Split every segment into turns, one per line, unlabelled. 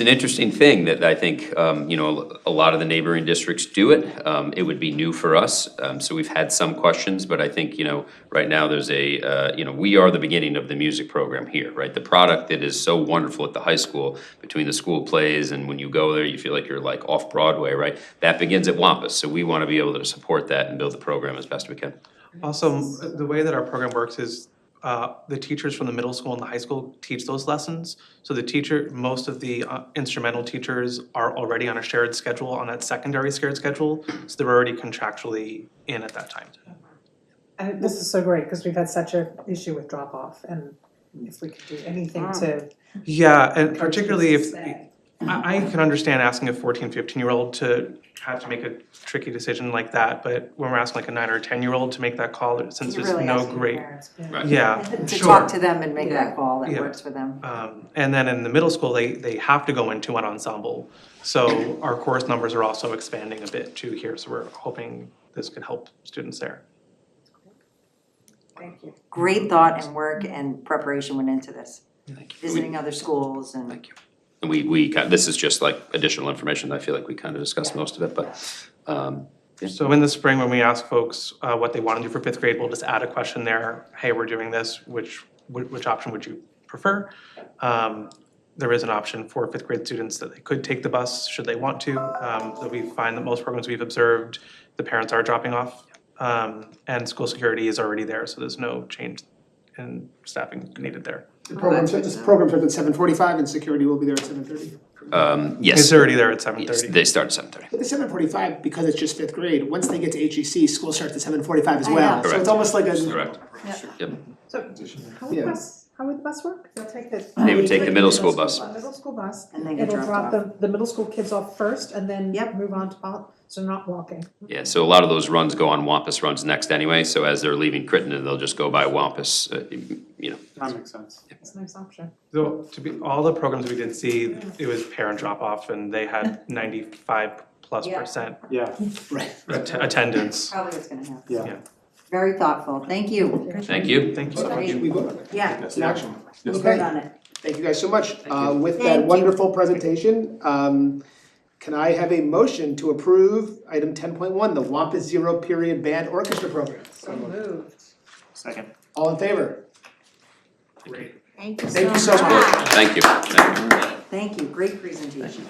It's an interesting thing that I think, um, you know, a lot of the neighboring districts do it. Um, it would be new for us, um, so we've had some questions, but I think, you know, right now there's a, uh, you know, we are the beginning of the music program here, right? The product that is so wonderful at the high school, between the school plays and when you go there, you feel like you're like off Broadway, right? That begins at Wampus, so we wanna be able to support that and build the program as best we can.
Also, m- the way that our program works is uh, the teachers from the middle school and the high school teach those lessons. So the teacher, most of the uh, instrumental teachers are already on a shared schedule, on that secondary shared schedule. So they're already contractually in at that time.
I this is so great, cause we've had such a issue with drop off and if we could do
Ah.
anything to.
Yeah, and particularly if, I,
Stay.
I can understand asking a 14, 15-year-old to have to make a tricky decision like that. But when we're asking like a nine or a 10-year-old to make that call, since there's no great,
Right.
yeah,
To
sure.
talk to them and make
Yeah.
that call that
Yeah.
works for them.
Um, and then in the middle school, they, they have to go into an ensemble. So our chorus numbers are also expanding a bit too here, so we're hoping this could help students there.
Thank you.
Great thought and work and preparation went into this, visiting other schools and
Thank you. And we, we, kind- this is just like additional information, I feel like we kind of discussed most of it, but, um, Yeah.
So in the spring, when we ask folks, uh, what they wanna do for fifth grade, we'll just add a question there, hey, we're doing this, which, which, which option would you prefer? Um, there is an option for fifth grade students that they could take the bus, should they want to, um, that we find that most programs we've observed, the parents are dropping off. Um, and school security is already there, so there's no change in staffing needed there.
The
Oh,
program, this program starts at seven forty-five and security will be there at seven thirty.
um, yes.
It's already there at seven
Yes,
thirty.
they start at seven thirty.
But the seven forty-five, because it's just fifth grade, once they get to HEC, school starts at seven forty-five as
I
well.
know.
So it's almost like a.
Correct.
So how would the
Yeah.
bus, how would the bus work? They'll take the.
They would take the middle school bus.
The Middle school bus,
and then get
it'll
dropped
drop
off.
the, the middle school kids off first and then
Yep.
move on to, pol- so not walking.
Yeah, so a lot of those runs go on Wampus runs next anyway, so as they're leaving Crittenden, they'll just go by Wampus, uh, you know.
That makes sense.
It's a nice option.
So to be, all the programs we did see, it was parent drop off and they had ninety-five plus
Yeah.
percent
Yeah,
Right.
att- attendance.
Probably it's gonna happen.
Yeah.
Yeah.
Very thoughtful, thank you.
Thank you.
Thank you so much.
So we vote on it.
Yeah,
It's an action.
we'll
Okay.
vote on it.
Thank you guys so much. Uh, with
Thank
that
you.
wonderful presentation, um, can I have a motion to approve item ten point one, the Wampus Zero Period Band Orchestra Program?
So moved.
second.
All in favor?
Thank you
Thank you so much.
Thank you. Thank you.
Thank you, great presentation.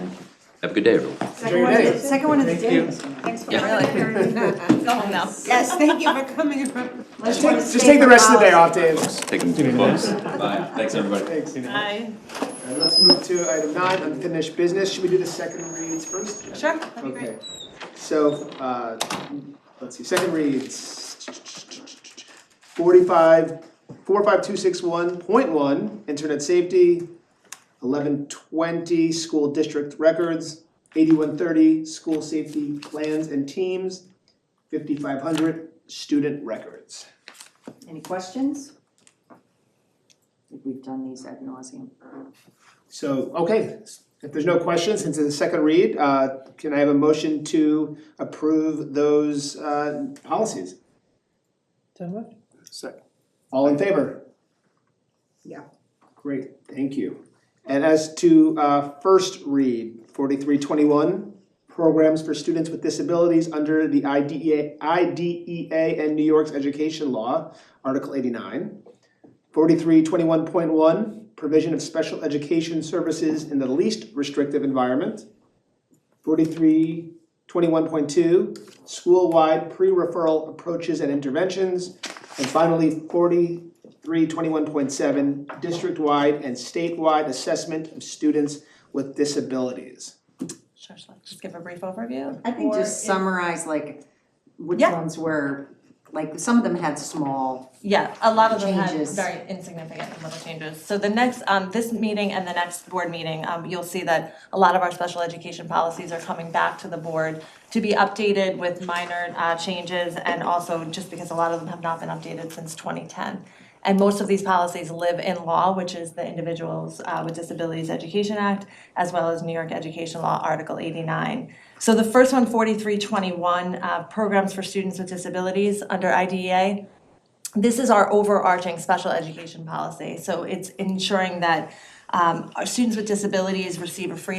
Have a good day, everyone.
Second one of
Enjoy your
the,
day.
second one of the
Thank you.
day.
Thanks for
Yeah.
coming.
Yes, thank you for coming.
Just take, just take the rest of the day off, Dave.
Take them to the books. Bye. Thanks, everybody.
Thanks. All right, let's move to item nine, unfinished business. Should we do the second reads first? Jen?
Sure,
Okay, so, uh, let's see, second reads. Forty-five, four five two six one point one, internet safety. Eleven twenty, school district records. Eighty-one thirty, school safety plans and teams. Fifty-five hundred, student records.
Any questions? I think We've done these ad nauseum.
So, okay, if there's no questions, since it's a second read, uh, can I have a motion to approve those, uh, policies?
So moved.
Second.
All in favor?
Yeah.
Great, thank you. And as to, uh, first read, forty-three twenty-one, programs for students with disabilities under the E IDEA, IDEA E and New York's education law, Article eighty-nine. Forty-three twenty-one point one, provision of special education services in the least restrictive environment. Forty-three twenty-one point two, school-wide pre-referral approaches and interventions. And finally, forty-three twenty-one point seven, district-wide and statewide assessment of students with disabilities.
Sure, so let's just give a brief overview.
I think
Or
just
if-
summarize like which
Yeah.
ones were, like some of them had small,
Yeah, a lot of them had
Changes.
very insignificant and little changes. So the next, um, this meeting and the next board meeting, um, you'll see that a lot of our special education policies are coming back to the board to be updated with minor, uh, changes and also just because a lot of them have not been updated since twenty ten. And most of these policies live in law, which is the Individuals uh, with Disabilities Education Act, as well as New York Education Law, Article eighty-nine. So the first one, 4321, uh, Programs for Students with Disabilities under E IDEA, this is our overarching special education policy. So it's ensuring that um, our students with disabilities receive a free